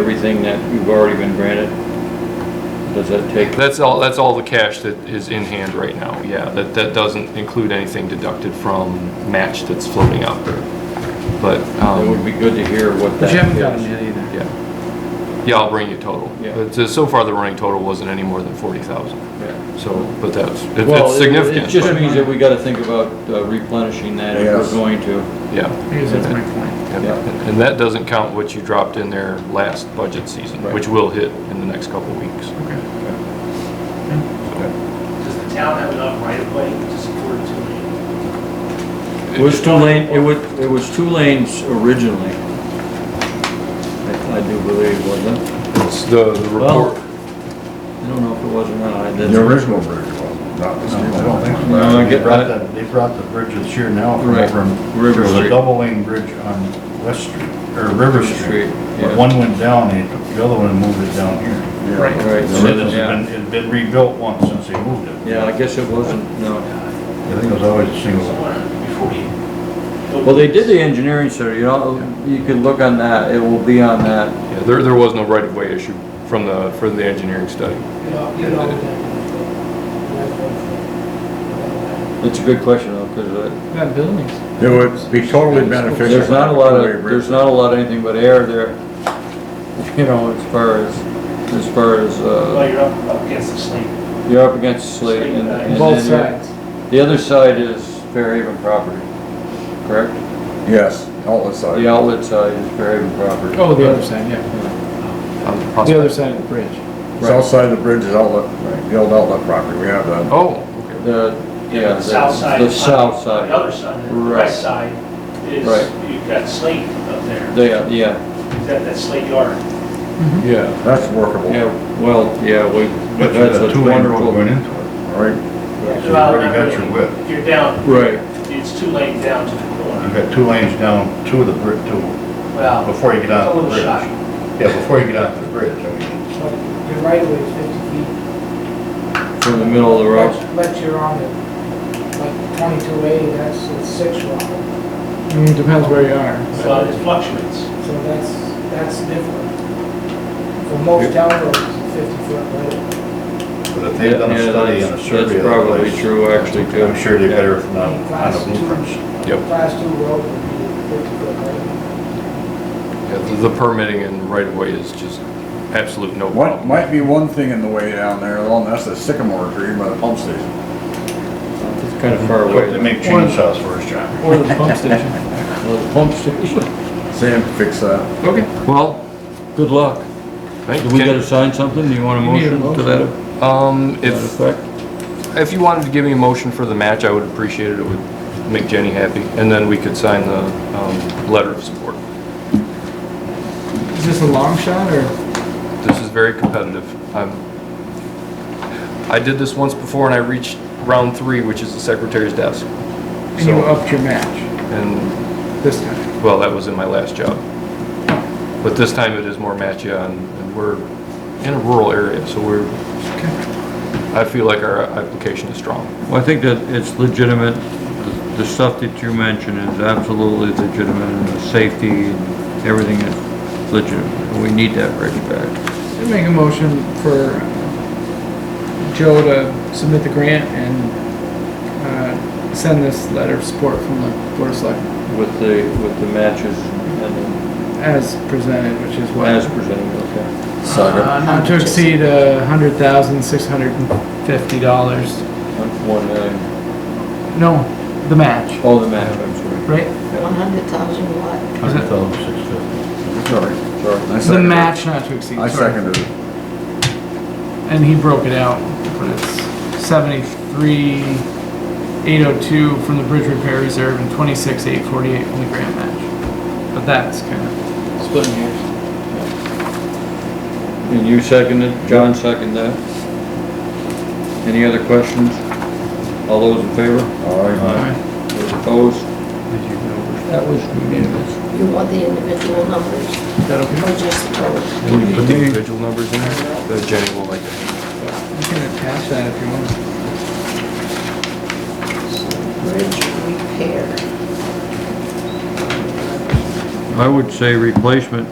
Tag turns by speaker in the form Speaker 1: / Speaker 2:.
Speaker 1: everything that you've already been granted? Does that take,
Speaker 2: That's all, that's all the cash that is in hand right now, yeah. That, that doesn't include anything deducted from match that's floating out there. But,
Speaker 1: it would
Speaker 2: um,
Speaker 1: be good to hear what that
Speaker 3: But
Speaker 1: is.
Speaker 3: you haven't gotten yet either.
Speaker 2: yeah. Yeah, I'll bring you total.
Speaker 1: Yeah.
Speaker 2: But uh, so- so far, the running total wasn't any more than forty thousand,
Speaker 1: Yeah.
Speaker 2: so, but that's, it-
Speaker 1: Well,
Speaker 2: it's
Speaker 1: it- It
Speaker 2: significant,
Speaker 1: just
Speaker 2: but,
Speaker 1: means that we gotta think about uh, replenishing that if we're
Speaker 4: Yes.
Speaker 1: going to.
Speaker 2: yeah.
Speaker 3: I guess that's my point.
Speaker 2: And-
Speaker 1: Yeah.
Speaker 2: And that doesn't count what you dropped in there last budget season,
Speaker 1: Right.
Speaker 2: which will hit in the next couple weeks.
Speaker 3: Okay.
Speaker 5: Does the town have enough right of way to support two lanes?
Speaker 1: It was two lane, it was, it was two lanes originally. I, I do believe, wasn't it?
Speaker 2: It's the the
Speaker 1: Well- I
Speaker 2: report,
Speaker 1: don't know if it was or not, I didn't.
Speaker 4: The original bridge was, not this new
Speaker 6: I don't think so.
Speaker 4: one.
Speaker 1: No, I
Speaker 6: They
Speaker 1: get
Speaker 6: brought
Speaker 1: that.
Speaker 6: the- They brought the bridge this year now from
Speaker 1: Right.
Speaker 6: over,
Speaker 1: River
Speaker 6: there was
Speaker 1: Street.
Speaker 6: a double lane bridge on West Street, or River
Speaker 1: Street,
Speaker 6: Street.
Speaker 1: yeah.
Speaker 6: But one went down, they took the other one and moved it down here.
Speaker 4: Yeah.
Speaker 3: Right.
Speaker 1: Right,
Speaker 6: The
Speaker 1: so
Speaker 6: original's
Speaker 1: then, yeah.
Speaker 6: been, it's been rebuilt once since they moved it.
Speaker 1: Yeah, I guess it wasn't, no.
Speaker 6: I think it was always a single.
Speaker 5: So, uh, Before you.
Speaker 1: Well, they did the engineering study, you know, you could look on that, it will be on that.
Speaker 2: yeah, there, there was no right-of-way issue from the, from the engineering study.
Speaker 1: It's a good question though, uh, because
Speaker 3: We got buildings.
Speaker 4: It would be totally beneficial.
Speaker 1: there's not a lot of,
Speaker 4: Two-way bridge.
Speaker 1: there's not a lot of anything but air there. You know, as far as, as far as,
Speaker 5: Well,
Speaker 1: uh,
Speaker 5: you're up, up against the slate.
Speaker 1: you're up against slate and. and then
Speaker 3: Both
Speaker 1: you're-
Speaker 3: sides.
Speaker 1: The other side is Fairhaven property, correct?
Speaker 4: Yes, outlet
Speaker 1: The
Speaker 4: side.
Speaker 1: outlet side is Fairhaven property.
Speaker 3: Oh, the other side, yeah.
Speaker 2: on Um, the
Speaker 3: The other
Speaker 2: prospect.
Speaker 3: side of the bridge.
Speaker 4: South side of the bridge is outlet, the old outlet property, we have that.
Speaker 2: Oh, okay.
Speaker 1: The, yeah,
Speaker 5: The south side.
Speaker 1: the south
Speaker 5: On The
Speaker 1: side.
Speaker 5: other side, the
Speaker 1: Right.
Speaker 5: west side is,
Speaker 1: Right.
Speaker 5: you've got slate up there.
Speaker 1: Yeah, yeah,
Speaker 5: You've got that slate yard.
Speaker 2: Yeah,
Speaker 4: That's workable,
Speaker 1: yeah,
Speaker 4: all
Speaker 1: well, yeah, we,
Speaker 6: But you
Speaker 1: that's
Speaker 6: got
Speaker 1: a
Speaker 6: two lane road
Speaker 1: wonderful.
Speaker 6: going into it.
Speaker 4: right?
Speaker 5: You've
Speaker 6: Well, already got your width.
Speaker 5: If you're down,
Speaker 1: Right,
Speaker 5: it's two lane down to the
Speaker 6: You've
Speaker 5: corner.
Speaker 6: got two lanes down, two of the bridge, two,
Speaker 5: Well,
Speaker 6: before you get
Speaker 5: it's
Speaker 6: onto
Speaker 5: a
Speaker 6: the
Speaker 5: little
Speaker 6: bridge.
Speaker 5: shot.
Speaker 6: Yeah, before you get onto the bridge, I mean.
Speaker 7: But Your right away is fifty feet.
Speaker 1: from the middle of the road.
Speaker 7: But- But you're on the, like twenty-two A, that's it's six wide,
Speaker 3: I mean, it depends where you are.
Speaker 5: Well, it fluctuates.
Speaker 7: so that's, that's different. For most town roads, it's fifty foot right away.
Speaker 6: But if they've done
Speaker 1: Yeah,
Speaker 6: a study and a
Speaker 1: that's-
Speaker 6: survey
Speaker 1: that's
Speaker 6: of the
Speaker 1: probably
Speaker 6: place.
Speaker 1: true, actually, too.
Speaker 6: I'm sure they
Speaker 1: Yeah.
Speaker 6: better from the- on the
Speaker 7: Class two.
Speaker 6: blueprints.
Speaker 2: Yep.
Speaker 7: Class two road would be fifty foot right away.
Speaker 2: yeah, the- the permitting and right-of-way is just absolute no
Speaker 4: What,
Speaker 2: problem.
Speaker 4: might be one thing in the way down there, along, that's a sycamore tree by the pump station.
Speaker 1: It's kind of far
Speaker 6: They
Speaker 1: away.
Speaker 6: make chainsaws for us, John.
Speaker 3: Or the pump station.
Speaker 1: Well, the Pump station.
Speaker 4: Sam, fix that.
Speaker 2: Okay. Well,
Speaker 1: Good luck.
Speaker 2: thank
Speaker 1: Do we gotta
Speaker 2: you.
Speaker 1: sign something? Do you want a
Speaker 3: You need a
Speaker 1: motion to
Speaker 3: motion.
Speaker 1: that
Speaker 2: Um,
Speaker 1: that
Speaker 2: if,
Speaker 1: effect?
Speaker 2: if you wanted to give me a motion for the match, I would appreciate it. It would make Jenny happy. And then we could sign the, um, letter of support.
Speaker 3: Is this a long shot or?
Speaker 2: This is very competitive. I'm, I did this once before and I reached round three, which is the secretary's desk.
Speaker 3: And you
Speaker 2: So,
Speaker 3: upped your match
Speaker 2: and,
Speaker 3: this time.
Speaker 2: well, that was in my last job. But this time it is more matchy on, and we're in a rural area, so we're, I feel like our application is strong.
Speaker 1: Well, I think that it's legitimate, The- the stuff that you mentioned is absolutely legitimate, and the safety and everything is legitimate. We need that bridge back.
Speaker 3: I Make a motion for uh, Joe to submit the grant and uh, send this letter of support from the Board of Selectmen
Speaker 1: With the, with the matches and
Speaker 3: as presented, which is
Speaker 1: the
Speaker 3: what?
Speaker 1: as presented, okay.
Speaker 4: Sucker.
Speaker 3: Uh, Not to exceed a hundred thousand, six hundred and fifty dollars.
Speaker 1: One million.
Speaker 3: No, the match,
Speaker 1: Oh, the match, I'm sorry.
Speaker 3: right?
Speaker 8: 100,000 what?
Speaker 6: Hundred thousand six fifty.
Speaker 4: Sorry, sorry. I
Speaker 3: The
Speaker 4: seconded it.
Speaker 3: match not to exceed.
Speaker 4: I
Speaker 3: sorry.
Speaker 4: seconded it.
Speaker 3: And he broke it out, but it's seventy-three, eight oh two from the bridge repair reserve and twenty-six, eight forty-eight from the grant match. But that's kind of splitting hairs.
Speaker 1: And you seconded, John seconded that. Any other questions? All those in favor?
Speaker 4: All right.
Speaker 1: Those opposed? That was unanimous.
Speaker 8: You want the individual numbers? Or just both?
Speaker 2: Can you put the individual numbers in there? The Jenny will like it.
Speaker 3: You can attach that if you want.
Speaker 8: Bridge repair.
Speaker 1: I would say replacement.